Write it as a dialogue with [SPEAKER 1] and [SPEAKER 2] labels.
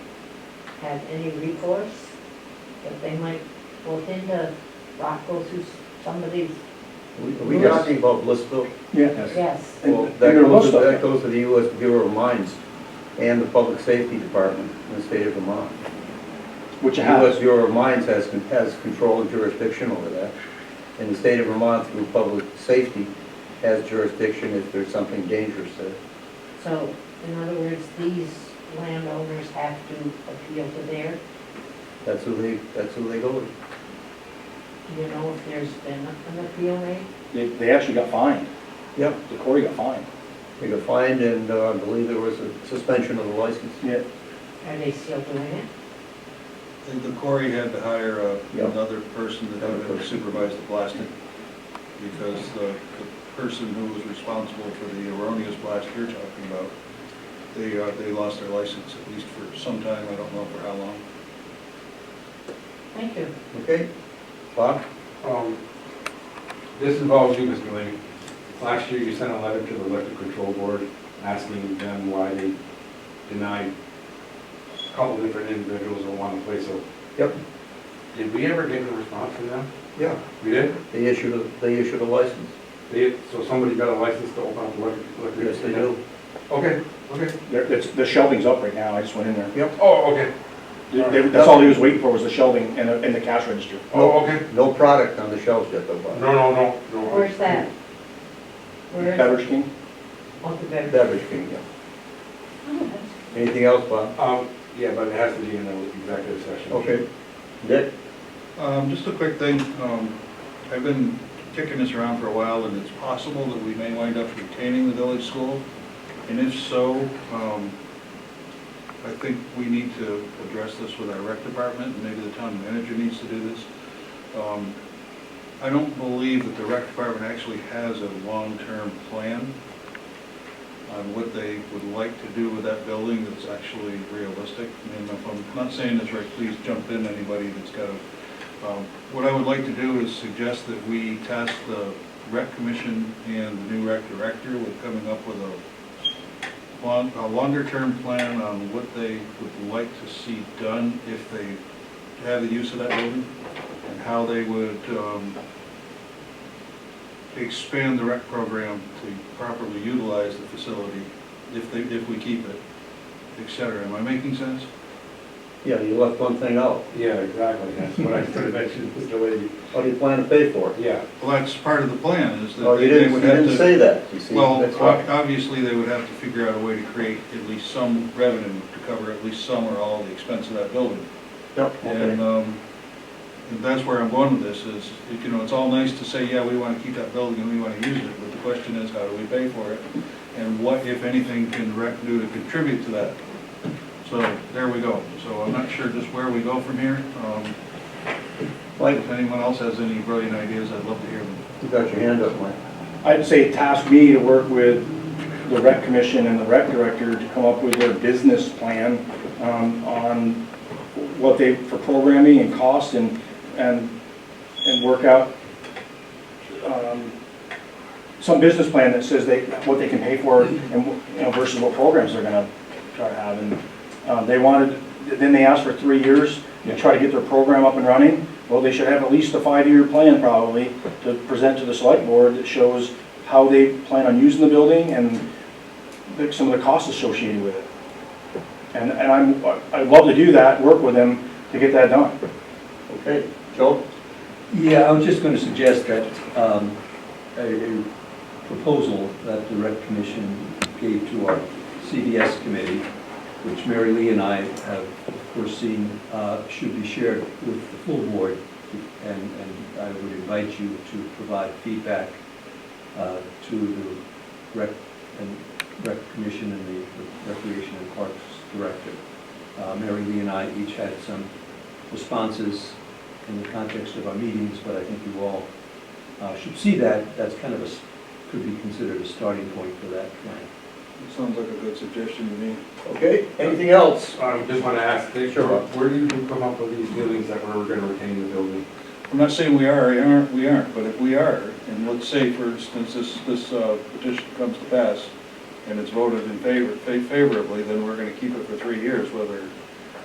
[SPEAKER 1] have any recourse? That they might look into Rockwell through somebody's,
[SPEAKER 2] Are we talking about Blissville?
[SPEAKER 3] Yeah.
[SPEAKER 2] Yes.
[SPEAKER 1] yes,
[SPEAKER 3] And-
[SPEAKER 2] Well,
[SPEAKER 3] and
[SPEAKER 2] that
[SPEAKER 3] they're
[SPEAKER 2] goes, to-
[SPEAKER 3] Woodstock.
[SPEAKER 2] that goes to the U.S. Bureau of Mines and the Public Safety Department in the state of Vermont.
[SPEAKER 3] Which
[SPEAKER 2] The
[SPEAKER 3] you have.
[SPEAKER 2] U.S. Bureau of Mines has, con- has control and jurisdiction over that. And the state of Vermont through Public Safety has jurisdiction if there's something dangerous there.
[SPEAKER 1] so, in other words, these landowners have to appeal to their,
[SPEAKER 2] That's who they, that's who they go with.
[SPEAKER 1] do you know if there's been an appeal made?
[SPEAKER 3] They, they actually got fined.
[SPEAKER 2] Yep.
[SPEAKER 3] The quarry got fined.
[SPEAKER 2] They got fined and uh, I believe there was a suspension of the license.
[SPEAKER 3] Yeah.
[SPEAKER 1] Are they still doing it?
[SPEAKER 4] And the quarry had to hire uh,
[SPEAKER 2] Yeah.
[SPEAKER 4] another person to have him supervise the blasting, because the the person who was responsible for the erroneous blast you're talking about, they, uh, they lost their license at least for some time, I don't know for how long.
[SPEAKER 1] Thank you.
[SPEAKER 2] Okay? Bob?
[SPEAKER 5] Um, This involves you, Mr. Lane. Last year, you sent a letter to the electric control board asking them why they denied a couple different individuals in one place. So
[SPEAKER 2] Yep.
[SPEAKER 5] Did we ever get a response from them?
[SPEAKER 2] Yeah.
[SPEAKER 5] We did?
[SPEAKER 2] They issued, a- they issued a license.
[SPEAKER 5] They, so somebody got a license to open up the electric? electric-
[SPEAKER 2] Yes, they do.
[SPEAKER 5] Okay, okay.
[SPEAKER 3] Their, it's- their shelving's up right now. I just went in there.
[SPEAKER 5] Oh, okay.
[SPEAKER 3] They- they- That's all he was waiting for was the shelving and, the- and the cash register.
[SPEAKER 5] Oh, okay.
[SPEAKER 2] No product on the shelves yet though, Bob.
[SPEAKER 5] No, no, no, no.
[SPEAKER 1] Where's that? Where is,
[SPEAKER 3] Beverage King?
[SPEAKER 1] oh, the better.
[SPEAKER 2] Beverage King, yeah.
[SPEAKER 1] Oh,
[SPEAKER 2] Anything else, Bob?
[SPEAKER 5] Um, yeah, but it has to be in the executive session.
[SPEAKER 2] Okay. Dick?
[SPEAKER 4] Um, Just a quick thing, um, I've been kicking this around for a while, and it's possible that we may wind up retaining the village school, and if so, um, I think we need to address this with our rec department, and maybe the town manager needs to do this. Um, I don't believe that the rec department actually has a long-term plan on what they would like to do with that building that's actually realistic. And if I'm not saying this right, please jump in, anybody that's got a um, What I would like to do is suggest that we task the rec commission and the new rec director with coming up with a long, a longer-term plan on what they would like to see done if they have the use of that building, and how they would um, expand the rec program to properly utilize the facility if they, if we keep it, et cetera. Am I making sense?
[SPEAKER 2] Yeah, you left one thing out.
[SPEAKER 5] Yeah, exactly. That's what I sort of mentioned, Mr. Lady.
[SPEAKER 2] How do you plan to pay for it?
[SPEAKER 5] Yeah.
[SPEAKER 4] Well, that's part of the plan, is that
[SPEAKER 2] Oh, you
[SPEAKER 4] they- they
[SPEAKER 2] didn't, you
[SPEAKER 4] would have to...
[SPEAKER 2] didn't say that, you see?
[SPEAKER 4] Well,
[SPEAKER 2] That's
[SPEAKER 4] ob-
[SPEAKER 2] why.
[SPEAKER 4] obviously, they would have to figure out a way to create at least some revenue to cover at least some or all the expense of that building.
[SPEAKER 2] Yep,
[SPEAKER 4] And,
[SPEAKER 2] okay.
[SPEAKER 4] um, and that's where I'm going with this, is, you know, it's all nice to say, yeah, we wanna keep that building and we wanna use it, but the question is, how do we pay for it? And what, if anything, can rec do to contribute to that? So, there we go. So I'm not sure just where we go from here. Um,
[SPEAKER 2] Mike,
[SPEAKER 4] if anyone else has any brilliant ideas, I'd love to hear them.
[SPEAKER 2] you got your hand up, Mike.
[SPEAKER 3] I'd say task me to work with the rec commission and the rec director to come up with their business plan um, on what they, for programming and cost and, and, and work out um, some business plan that says they, what they can pay for and, wh- you know, versus what programs they're gonna try to have. And um, they wanted, then they asked for three years to try to get their program up and running. Well, they should have at least a five-year plan probably to present to the select board that shows how they plan on using the building and the- some of the costs associated with it. And, and I'm, I'd love to do that, work with them to get that done.
[SPEAKER 2] Okay, Joe?
[SPEAKER 6] Yeah, I was just going to suggest that um, a a proposal that the rec commission gave to our CDS committee, which Mary Lee and I have foreseen uh, should be shared with the full board, and and I would invite you to provide feedback uh, to the rec, and rec commission and the recreation and parks director. Uh, Mary Lee and I each had some responses in the context of our meetings, but I think you all uh, should see that, that's kind of a, s- could be considered a starting point for that plan.
[SPEAKER 4] Sounds like a good suggestion to me.
[SPEAKER 2] Okay, anything else?
[SPEAKER 5] I just want to ask, Dick,
[SPEAKER 2] Sure.
[SPEAKER 5] where do you come up with these buildings that we're going to retain the building?
[SPEAKER 4] I'm not saying we are, or aren't, we aren't, but if we are, and let's say, for instance, this, this uh, petition comes to pass, and it's voted in favor, fa- favorably, then we're gonna keep it for three years, whether